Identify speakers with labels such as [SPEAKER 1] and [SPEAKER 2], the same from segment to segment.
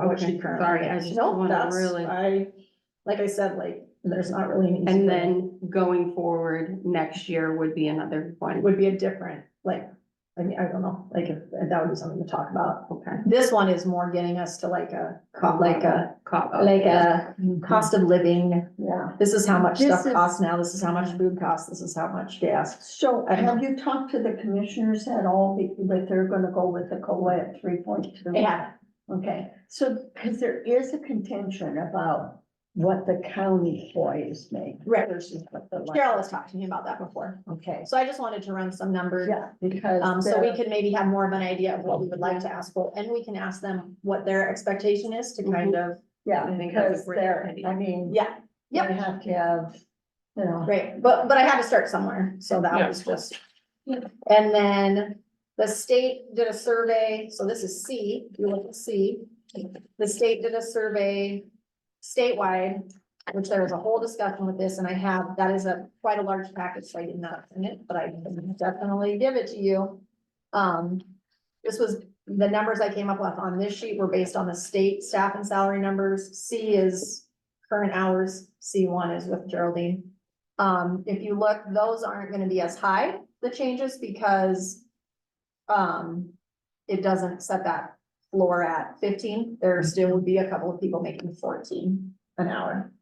[SPEAKER 1] of what she
[SPEAKER 2] Okay,
[SPEAKER 1] currently
[SPEAKER 2] sorry, I
[SPEAKER 1] is.
[SPEAKER 2] just
[SPEAKER 1] No,
[SPEAKER 2] wanna
[SPEAKER 1] that's,
[SPEAKER 2] really.
[SPEAKER 1] I, like I said, like, there's not really an easy
[SPEAKER 2] And
[SPEAKER 1] way.
[SPEAKER 2] then going forward, next year would be another
[SPEAKER 1] It
[SPEAKER 2] one.
[SPEAKER 1] would be a different, like, I mean, I don't know, like, if that would be something to talk about.
[SPEAKER 2] Okay.
[SPEAKER 1] This one is more getting us to like a,
[SPEAKER 2] Cop
[SPEAKER 1] like a,
[SPEAKER 2] Cop out.
[SPEAKER 1] like uh, a cost of living.
[SPEAKER 3] Yeah.
[SPEAKER 1] This is how much
[SPEAKER 3] This
[SPEAKER 1] stuff
[SPEAKER 3] is-
[SPEAKER 1] costs now, this is how much food costs, this is how much gas.
[SPEAKER 3] So
[SPEAKER 1] I don't
[SPEAKER 3] have you talked to the commissioners at all, be- that they're gonna go with the COLA at three point two?
[SPEAKER 1] Yeah.
[SPEAKER 3] Okay, so, because there is a contention about what the county employees make
[SPEAKER 1] Right,
[SPEAKER 3] versus what the.
[SPEAKER 1] Carol has talked to me about that before,
[SPEAKER 3] Okay,
[SPEAKER 1] so I just wanted to run some numbers.
[SPEAKER 3] yeah, because.
[SPEAKER 1] Um, so we
[SPEAKER 3] the-
[SPEAKER 1] could maybe have more of an idea of what we would like to ask for, and we can ask them what their expectation is to kind of,
[SPEAKER 3] Yeah,
[SPEAKER 2] I think that's a
[SPEAKER 3] because
[SPEAKER 2] great
[SPEAKER 3] they're,
[SPEAKER 2] idea.
[SPEAKER 3] I mean,
[SPEAKER 1] yeah,
[SPEAKER 3] you
[SPEAKER 1] Yep.
[SPEAKER 3] have to have, you know.
[SPEAKER 1] Right, but, but I had to start somewhere, so that
[SPEAKER 2] Yeah.
[SPEAKER 1] was just. And then the state did a survey, so this is C, if you look at C, the state did a survey statewide, which there was a whole discussion with this, and I have, that is a, quite a large package, so I did not send it, but I can definitely give it to you. Um, this was, the numbers I came up with on this sheet were based on the state staff and salary numbers. C is current hours, C one is with Geraldine. Um, if you look, those aren't gonna be as high, the changes, because um, it doesn't set that floor at fifteen. There still would be a couple of people making fourteen an hour.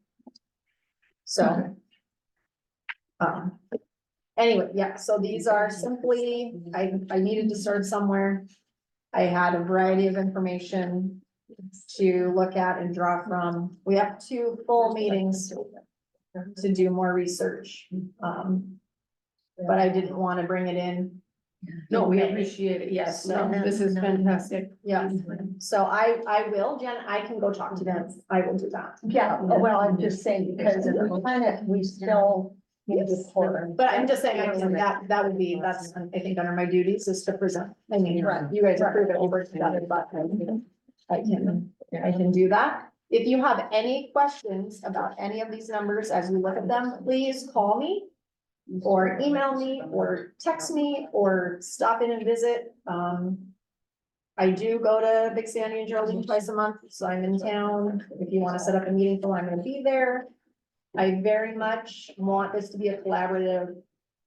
[SPEAKER 1] So. Um, anyway, yeah, so these are simply, I, I needed to start somewhere. I had a variety of information to look at and draw from. We have two full meetings to do more research. Um, but I didn't want to bring it in.
[SPEAKER 2] No, we appreciate it. Yes, no,
[SPEAKER 3] No,
[SPEAKER 2] this is
[SPEAKER 3] no.
[SPEAKER 2] fantastic.
[SPEAKER 1] Yeah, so I, I will, Jen, I can go talk to them. I will do that.
[SPEAKER 3] Yeah, well, I'm just saying, because we kind of, we still need to. pour-
[SPEAKER 1] But I'm just saying, I mean, that, that would be, that's, I think, under my duties is to present. I mean, you guys approve it over together, but I can, I can do that. If you have any questions about any of these numbers as you look at them, please call me or email me or text me or stop in and visit. Um, I do go to Big Sandy and Geraldine twice a month, so I'm in town. If you want to set up a meeting, so I'm gonna be there. I very much want this to be a collaborative.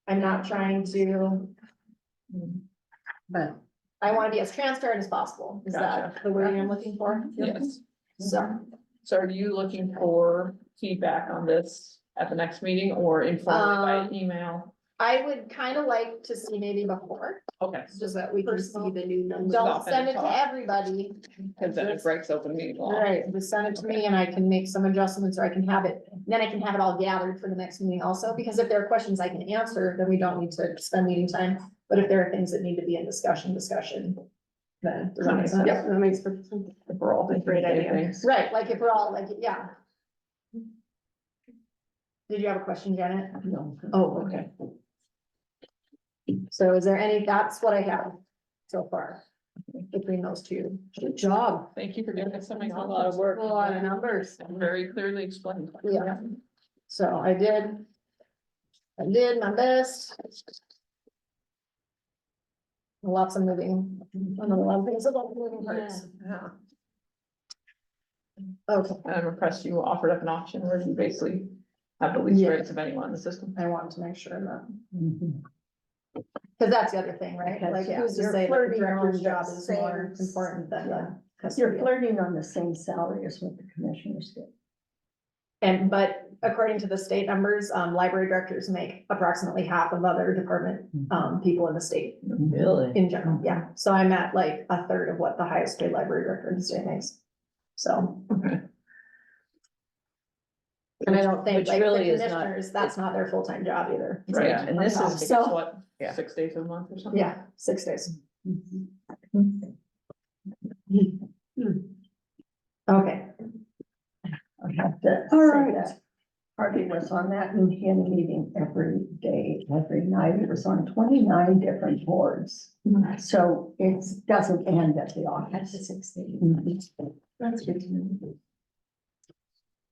[SPEAKER 1] I'm not trying to,
[SPEAKER 3] But.
[SPEAKER 1] I want to be as transparent as possible. Is that the word I'm looking for?
[SPEAKER 4] Yes,
[SPEAKER 1] So,
[SPEAKER 4] so are you looking for feedback on this at the next meeting or informally
[SPEAKER 1] Um,
[SPEAKER 4] by email?
[SPEAKER 1] I would kind of like to see maybe before,
[SPEAKER 4] Okay,
[SPEAKER 2] So that we can see the new numbers.
[SPEAKER 1] don't send it to everybody.
[SPEAKER 4] because then it breaks open meeting
[SPEAKER 1] All
[SPEAKER 4] law.
[SPEAKER 1] right, just send it to me and I can make some adjustments or I can have it, then I can have it all gathered for the next meeting also, because if there are questions I can answer, then we don't need to spend meeting time. But if there are things that need to be in discussion, discussion, then. does that make sense?
[SPEAKER 2] Yep, that makes perfect sense.
[SPEAKER 4] We're all thinking
[SPEAKER 2] Great
[SPEAKER 4] the same
[SPEAKER 2] idea.
[SPEAKER 4] things.
[SPEAKER 1] Right, like if we're all like, yeah. Did you have a question, Janet?
[SPEAKER 3] No.
[SPEAKER 1] Oh, okay. So is there any, that's what I have so far between those two.
[SPEAKER 2] Good job.
[SPEAKER 4] Thank you for doing this. That makes a lot of work.
[SPEAKER 2] A lot of numbers.
[SPEAKER 4] Very clearly explained.
[SPEAKER 1] Yeah. So I did. I did my best. Lots of moving, one of the love things about moving parts.
[SPEAKER 4] Yeah.
[SPEAKER 1] Okay,
[SPEAKER 4] And I'm impressed you offered up an option where you basically have the least
[SPEAKER 1] Yeah.
[SPEAKER 4] rates of anyone in the system.
[SPEAKER 1] I wanted to make sure that, because that's the other thing, right? Like,
[SPEAKER 3] Because
[SPEAKER 1] who's to
[SPEAKER 3] you're
[SPEAKER 1] say that the
[SPEAKER 3] flirting
[SPEAKER 1] director's
[SPEAKER 3] on the
[SPEAKER 1] job is more
[SPEAKER 3] same-
[SPEAKER 1] important than the
[SPEAKER 3] You're
[SPEAKER 1] custodian?
[SPEAKER 3] flirting on the same salary as what the commissioners get.
[SPEAKER 1] And but according to the state numbers, um, library directors make approximately half of other department,
[SPEAKER 5] Hmm.
[SPEAKER 1] um, people in the state
[SPEAKER 3] Really?
[SPEAKER 1] in general, yeah. So I'm at like a third of what the highest paid library director in the state makes. So. And I don't think
[SPEAKER 5] Which
[SPEAKER 1] like the
[SPEAKER 5] really is not-
[SPEAKER 1] commissioners, that's not their full-time job either.
[SPEAKER 4] Right,
[SPEAKER 5] Yeah, and
[SPEAKER 1] On
[SPEAKER 5] this
[SPEAKER 1] top.
[SPEAKER 5] is,
[SPEAKER 4] So
[SPEAKER 1] So,
[SPEAKER 4] what,
[SPEAKER 5] Yeah.
[SPEAKER 4] six days a month or something?
[SPEAKER 1] yeah, six days. Okay,
[SPEAKER 3] I have to
[SPEAKER 2] All
[SPEAKER 3] say
[SPEAKER 2] right.
[SPEAKER 3] that. Harvey was on that and he had a meeting every day, every night. It was on twenty-nine different boards.
[SPEAKER 4] Mhm.
[SPEAKER 3] So it doesn't end Mm-hmm. at the office. Mm-hmm.
[SPEAKER 5] That's good to know.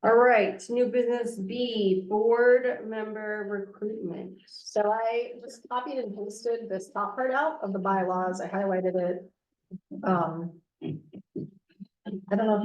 [SPEAKER 2] All right, new business B, board member recruitment.
[SPEAKER 1] so I just copied and pasted this top part out of the bylaws. I highlighted it. Um. I don't know if